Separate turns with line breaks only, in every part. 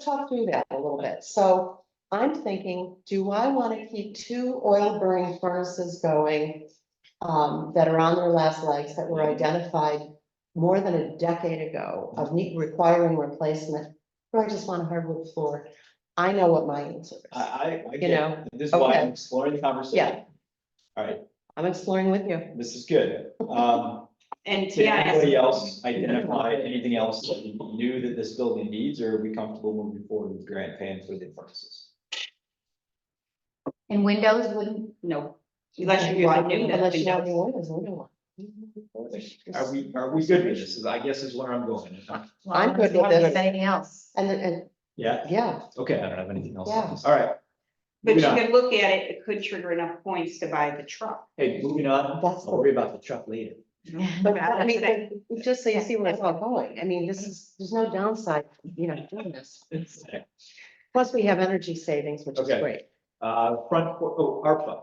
talk through that a little bit. So I'm thinking, do I want to keep two oil burning furnaces going? um, that are on their last legs that were identified more than a decade ago of need requiring replacement? Or I just want a hardwood floor? I know what my answer is.
I, I, I
You
get,
know,
it. this is why
okay.
I'm exploring the conversation. All right,
I'm exploring with you.
this is good. Um,
And
did
yeah,
anybody else identify anything else that you knew that this building needs, or are we comfortable moving forward with grant paying for the furnaces?
and windows wouldn't, no, unless you want new,
Unless you have
windows.
new windows, we don't want.
Are we, are we good with this? Is- I guess is where I'm going.
I'm good with this.
Anything else?
And, and,
Yeah,
yeah,
okay, I don't have anything else.
Yeah.
All right.
But you
Moving on.
can look at it, it could trigger enough points to buy the truck.
Hey, moving on.
That's the-
I'll worry about the truck later.
but I mean,
That's
but just so you see where it's all going. I mean, this is, there's no downside, you know, doing this. Plus, we have energy savings, which is
Okay.
great.
Uh, front, por- oh, ARPA.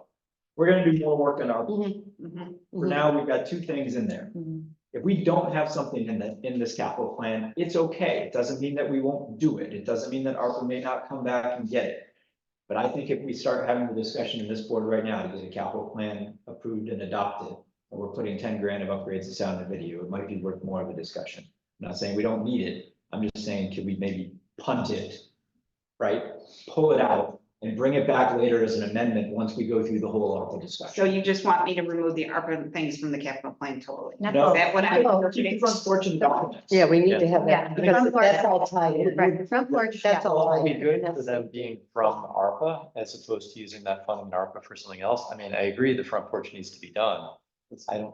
We're gonna do more work on ARPA.
Mm-hmm.
Mhm,
Mhm,
For
mhm.
now, we've got two things in there.
mhm.
If we don't have something in the, in this capital plan, it's okay. It doesn't mean that we won't do it. It doesn't mean that ARPA may not come back and get it. But I think if we start having the discussion in this board right now, there's a capital plan approved and adopted, and we're putting ten grand of upgrades to sound and video, it might be worth more of a discussion. I'm not saying we don't need it. I'm just saying, could we maybe punt it? Right? Pull it out and bring it back later as an amendment once we go through the whole ARPA
So
discussion.
you just want me to remove the ARPA things from the capital plan totally? Is
No.
that what I?
No.
Keep those unfortunate documents.
Yeah, we need to have
Yeah.
that, because
Yeah.
that's all tied in.
Right, the front porch, yeah.
That's all tied
Be
in.
good for
That's-
them being from ARPA as opposed to using that fund in ARPA for something else. I mean, I agree, the front porch needs to be done. I don't,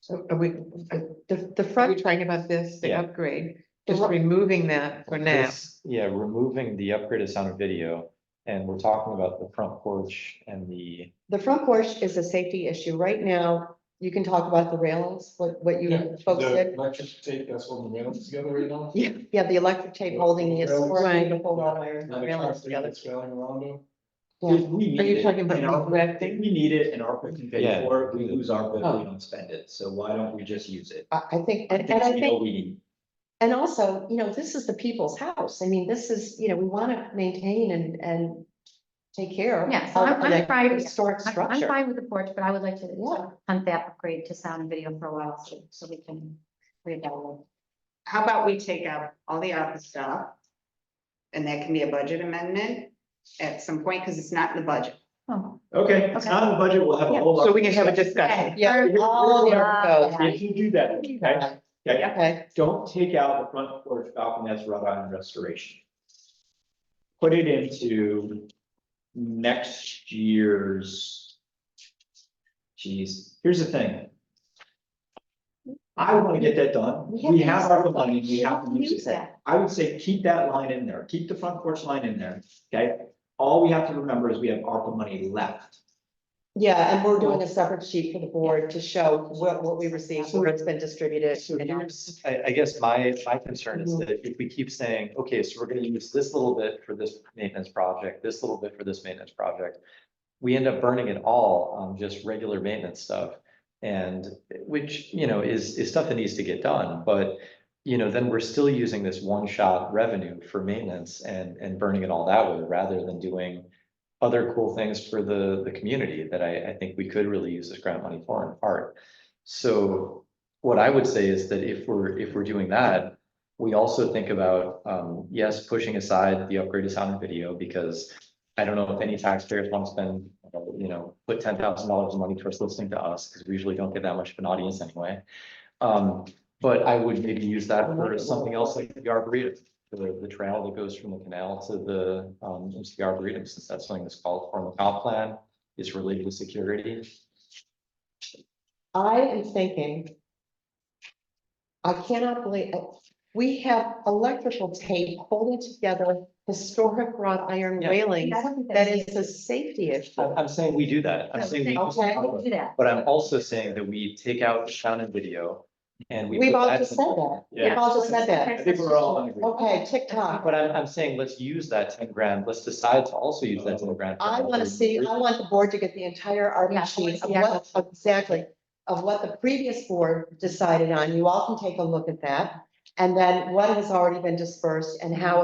So Are we, are the, the front, talking about this, the
Yeah.
upgrade,
The
just
ru-
removing that for now.
This- yeah, removing the upgrade of sound and video, and we're talking about the front porch and the,
The front porch is a safety issue. Right now, you can talk about the railings, what, what you folks did.
Electric tape, that's holding the railings together right now.
Yeah, yeah, the electric tape holding the
Railings.
scorpion to
Right.
hold on iron
Another
railings
concrete
together.
that's failing around them.
Yeah.
If we
Are
need
you
it
talking about
in ARPA,
regrafting?
if We need it and ARPA can pay
Yeah.
for it, we lose ARPA if
Oh.
we don't spend it, so why don't we just use it?
I, I think, and and I
we
think.
know we need-
And also, you know, this is the people's house. I mean, this is, you know, we want to maintain and, and take care.
Yeah, so
of
I'm- I'm
an
fine with-
Historic
I'm- I'm
structure.
fine with the porch, but I would like
Yeah.
to hunt that upgrade to sound and video for a while, so, so we can. read that one.
How about we take out all the ARPA stuff? And that can be a budget amendment at some point, because it's not in the budget.
Oh,
Okay, it's not in the budget, we'll have a whole.
So we can have a
ARPA
discussion.
Yeah,
Here-
all
here's
the
what-
goes.
If you do that, okay, okay,
Okay,
don't take out the front porch balcony that's wrought iron restoration. Put it into next year's. Geez, here's the thing. I want to get that done.
We have
We
to
have
use
our
that.
money, we have to use
Use
it.
it.
I would say keep that line in there, keep the front porch line in there, okay? All we have to remember is we have ARPA money left.
yeah, and we're doing a separate sheet for the board to show what, what we received, where it's been distributed.
So
and-
here's, I, I guess my, my concern is that if we keep saying, okay, so we're gonna use this little bit for this maintenance project, this little bit for this maintenance project. We end up burning it all on just regular maintenance stuff. And which, you know, is, is stuff that needs to get done, but, you know, then we're still using this one-shot revenue for maintenance and, and burning it all that way, rather than doing. Other cool things for the, the community that I, I think we could really use this grant money for in part. So what I would say is that if we're, if we're doing that, we also think about, um, yes, pushing aside the upgrade to sound and video because I don't know if any taxpayers want to spend, you know, put ten thousand dollars of money towards listening to us because we usually don't get that much of an audience anyway. Um, but I would maybe use that for something else like the arboretum, the, the trail that goes from the canal to the, um, into the arboretum, since that's something that's called for in the comp plan is related to security.
I am thinking. I cannot believe, it. we have electrical tape holding together historic wrought iron
Yeah.
railings.
I don't think
That
that's-
is a safety issue.
I'm I'm saying we do that. I'm saying we.
Okay.
Do that.
But I'm also saying that we take out sound and video and we.
We've
put
all
that-
just said that. We've
Yeah.
all just said that.
I think we're all on agreement.
Okay, TikTok.
But I'm, I'm saying, let's use that ten grand. Let's decide to also use that ten grand. for
I want
another
to see, I want the board to get the entire
Yeah,
ARPA
I wanna
sheet of
see
what, exactly, of what the previous board decided on. You all can take a look at that. And then what has already been dispersed and how